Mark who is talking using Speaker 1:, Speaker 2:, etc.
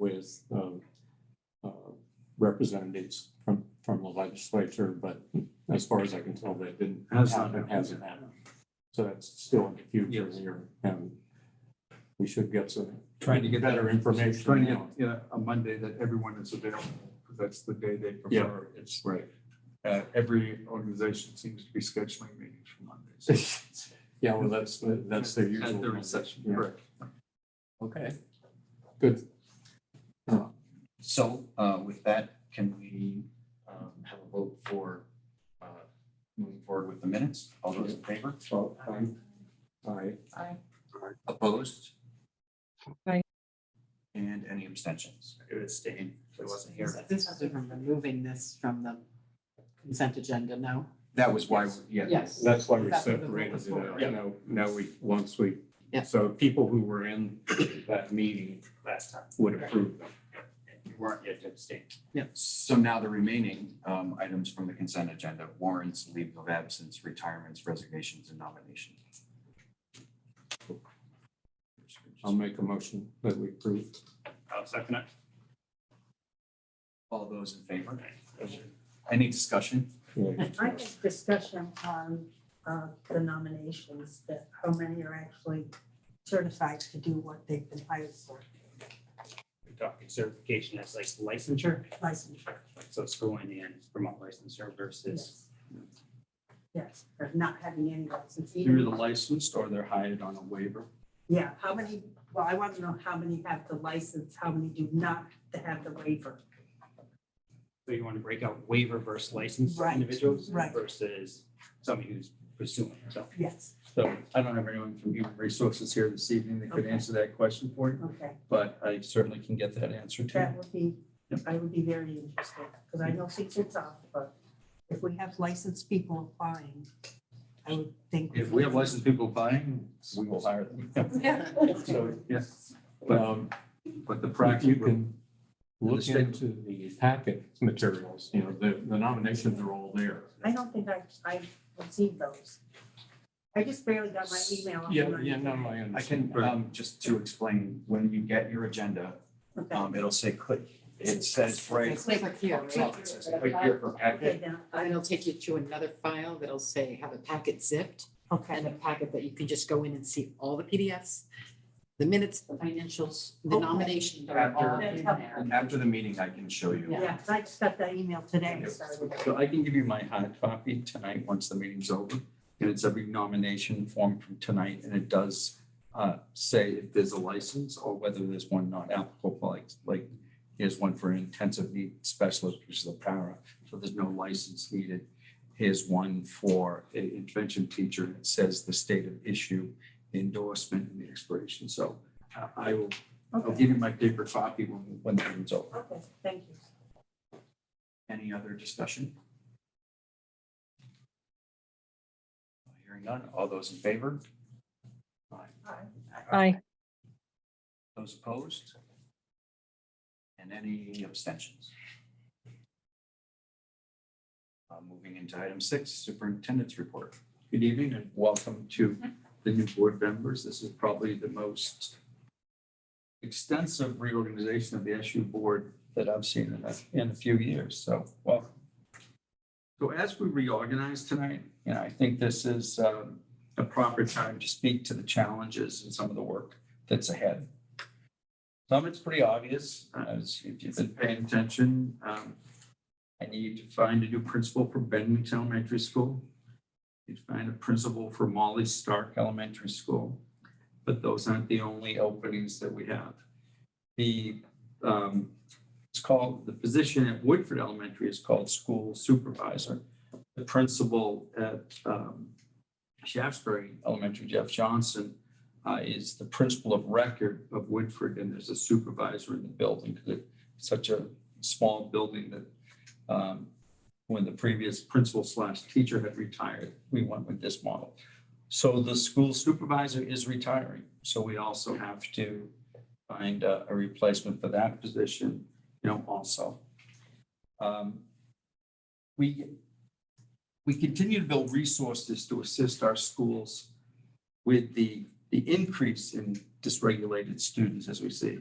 Speaker 1: with um, uh, representatives from, from the legislature, but as far as I can tell, that didn't
Speaker 2: Has not
Speaker 1: happen,
Speaker 2: happened.
Speaker 1: hasn't happened. So that's still in the future
Speaker 2: Yes.
Speaker 1: here, and we should get some
Speaker 2: Trying to get that,
Speaker 1: better information.
Speaker 2: trying to get,
Speaker 1: now.
Speaker 2: you know, a Monday that everyone is available, because that's the day they prefer. It's,
Speaker 1: Right.
Speaker 2: uh, every organization seems to be scheduling meetings for Mondays.
Speaker 1: Yeah, well, that's, that's their usual.
Speaker 2: At their recession,
Speaker 1: Yeah.
Speaker 2: correct.
Speaker 1: Okay. Good.
Speaker 3: So uh, with that, can we um, have a vote for uh, moving forward with the minutes? All those in favor?
Speaker 1: Well, um, All right.
Speaker 4: Aye.
Speaker 3: Opposed?
Speaker 4: Aye.
Speaker 3: And any abstentions? I would abstain, I wasn't here.
Speaker 4: This was from removing this from the consent agenda, no?
Speaker 3: That was why, yeah.
Speaker 4: Yes.
Speaker 1: That's why we
Speaker 4: That's what the
Speaker 1: separated it
Speaker 4: vote was
Speaker 1: out,
Speaker 4: for.
Speaker 1: you know, now we, once we,
Speaker 4: Yeah.
Speaker 1: so people who were in that meeting
Speaker 3: Last time.
Speaker 1: would approve them.
Speaker 3: You weren't yet abstained.
Speaker 4: Yeah.
Speaker 3: So now the remaining um, items from the consent agenda, warrants, leave of absence, retirements, resignations, and nominations.
Speaker 2: Um,
Speaker 1: I'll make a motion that we approve.
Speaker 5: I'll second it.
Speaker 3: All those in favor? Any discussion?
Speaker 6: I think discussion on uh, the nominations, that how many are actually certified to do what they've been hired for,
Speaker 5: We're talking certification as like licensure,
Speaker 6: licensure,
Speaker 5: so it's going in remote licensure versus
Speaker 6: yes. Yes, or not having any license
Speaker 2: They're
Speaker 6: either.
Speaker 2: either licensed or they're hired on a waiver.
Speaker 6: Yeah, how many, well, I want to know how many have the license, how many do not have the waiver.
Speaker 5: So you want to break out waiver versus licensed
Speaker 6: Right,
Speaker 5: individuals
Speaker 6: right.
Speaker 5: versus somebody who's pursuing. So,
Speaker 6: Yes,
Speaker 2: So I don't have anyone from human resources here this evening that could
Speaker 6: Okay.
Speaker 2: answer that question for you,
Speaker 6: okay,
Speaker 2: but I certainly can get that answer to you.
Speaker 6: that would be, I would be very interested, because I know six is off, but if we have licensed people applying, I would think.
Speaker 2: If we have licensed people buying, we will hire them.
Speaker 6: Yeah.
Speaker 2: So, yes,
Speaker 1: Um,
Speaker 2: but the
Speaker 1: Right,
Speaker 2: practice.
Speaker 1: you can look
Speaker 2: Understand.
Speaker 1: into the packet materials, you know, the, the nominations are all there.
Speaker 6: I don't think I, I received those. I just barely got my email. on
Speaker 1: Yeah,
Speaker 6: mine.
Speaker 1: yeah, no, I
Speaker 3: I can,
Speaker 1: understand.
Speaker 3: um, just to explain, when you get your agenda,
Speaker 1: Oh,
Speaker 6: Okay,
Speaker 3: um, it'll say click, it says right.
Speaker 4: It's like here,
Speaker 3: No, it says click here for
Speaker 6: okay,
Speaker 3: packet.
Speaker 6: then,
Speaker 4: And
Speaker 6: I-
Speaker 4: it'll take you to another file that'll say have a packet zipped and
Speaker 6: okay,
Speaker 4: a packet that you can just go in and see all the PDFs, the minutes, the financials, the
Speaker 6: Okay.
Speaker 4: nomination, they're all
Speaker 6: That's
Speaker 4: in
Speaker 6: helpful.
Speaker 4: there.
Speaker 3: And after the meeting, I can show you.
Speaker 6: yeah, 'cause I just got that email today, so.
Speaker 2: So I can give you my hard copy tonight, once the meeting's over. And it's every nomination form from tonight, and it does uh, say if there's a license or whether there's one not applicable, like, like here's one for an intensive need specialist, which is a para, so there's no license needed. Here's one for an intervention teacher, and it says the state of issue, the endorsement, and the expiration. So uh, I will, I'll
Speaker 6: Okay,
Speaker 2: give you my paper copy when, when the meeting's over.
Speaker 6: okay, thank you.
Speaker 3: Any other discussion? Hearing none, all those in favor?
Speaker 6: Aye.
Speaker 3: Aye. Those opposed? And any abstentions? Uh, moving into item six, superintendent's report.
Speaker 2: Good evening and welcome to the new board members. This is probably the most extensive reorganization of the SU board that I've seen in a, in a few years, so welcome. So as we reorganize tonight, you know, I think this is um, a proper time to speak to the challenges and some of the work that's ahead. Some it's pretty obvious, as if you've been paying attention. um, I need to find a new principal for Bennington Elementary School. You'd find a principal for Molly Stark Elementary School, but those aren't the only openings that we have. The, um, it's called, the position at Woodford Elementary is called school supervisor. The principal at, um, Shaftesbury Elementary, Jeff Johnson, uh, is the principal of record of Woodford, and there's a supervisor in the building, because it's such a small building that, um, when the previous principal slash teacher had retired, we went with this model. So the school supervisor is retiring, so we also have to find a, a replacement for that position, you know, also. Um, We, we continue to build resources to assist our schools with the, the increase in dysregulated students as we see.